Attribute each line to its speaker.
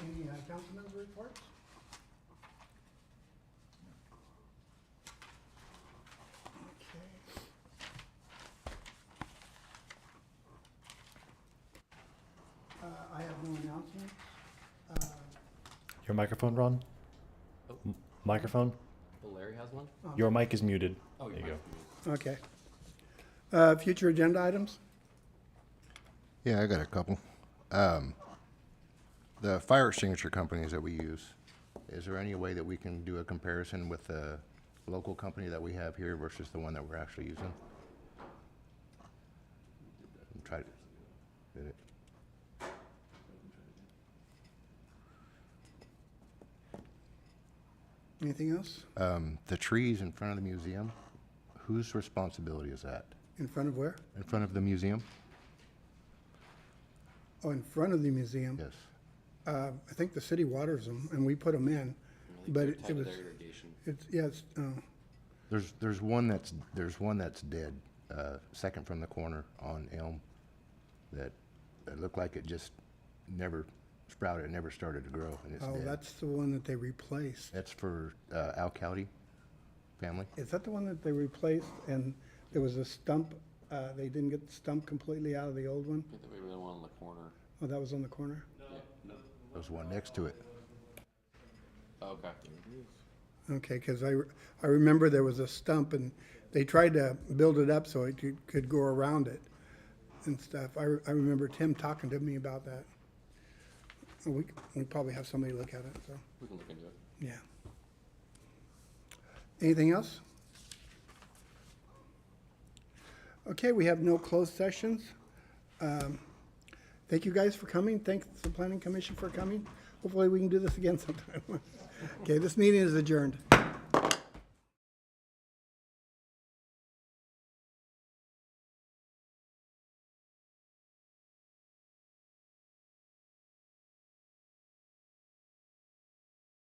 Speaker 1: uh, council member reports? Okay. Uh, I have no announcements. Uh,
Speaker 2: Your microphone, Ron?
Speaker 3: Oh.
Speaker 2: M- Microphone?
Speaker 3: Well, Larry has one?
Speaker 1: um,
Speaker 2: Your mic is muted.
Speaker 3: Oh,
Speaker 2: There
Speaker 3: your
Speaker 2: you go.
Speaker 3: mic's muted.
Speaker 1: Okay. Uh, Future agenda items?
Speaker 4: Yeah, I got a couple. Um, the fire extinguisher companies that we use, is there any way that we can do a comparison with the local company that we have here versus the one that we're actually using? And Try to, did it?
Speaker 1: Anything else?
Speaker 4: Um, the trees in front of the museum, whose responsibility is that?
Speaker 1: In front of where?
Speaker 4: In front of the museum?
Speaker 1: Oh, in front of the museum.
Speaker 4: Yes.
Speaker 1: Uh, I think the city waters them, and we put them in,
Speaker 3: I think
Speaker 1: but
Speaker 3: they're
Speaker 1: it
Speaker 3: tied
Speaker 1: it
Speaker 3: to
Speaker 1: was,
Speaker 3: their irrigation.
Speaker 1: it's, yeah, it's, uh,
Speaker 4: There's, there's one that's, there's one that's dead, uh, second from the corner on Elm, that, that looked like it just never sprouted, it never started to grow, and it's
Speaker 1: oh,
Speaker 4: dead.
Speaker 1: that's the one that they replaced.
Speaker 4: That's for, uh, Al Cowdy family?
Speaker 1: Is that the one that they replaced, and there was a stump, uh, they didn't get the stump completely out of the old one?
Speaker 3: I think we were the one in the corner.
Speaker 1: Oh, that was on the corner?
Speaker 4: There's one next to it.
Speaker 3: Oh, Okay.
Speaker 1: Okay, because I, re- I remember there was a stump, and they tried to build it up so it could- could go around it and stuff. I, re- I remember Tim talking to me about that. We, c- we probably have somebody look at it, so,
Speaker 3: We can look into it.
Speaker 1: yeah. Anything else? Okay, we have no closed sessions. Um, Thank you guys for coming. Thanks the planning commission for coming. Hopefully, we can do this again sometime. Okay, this meeting is adjourned.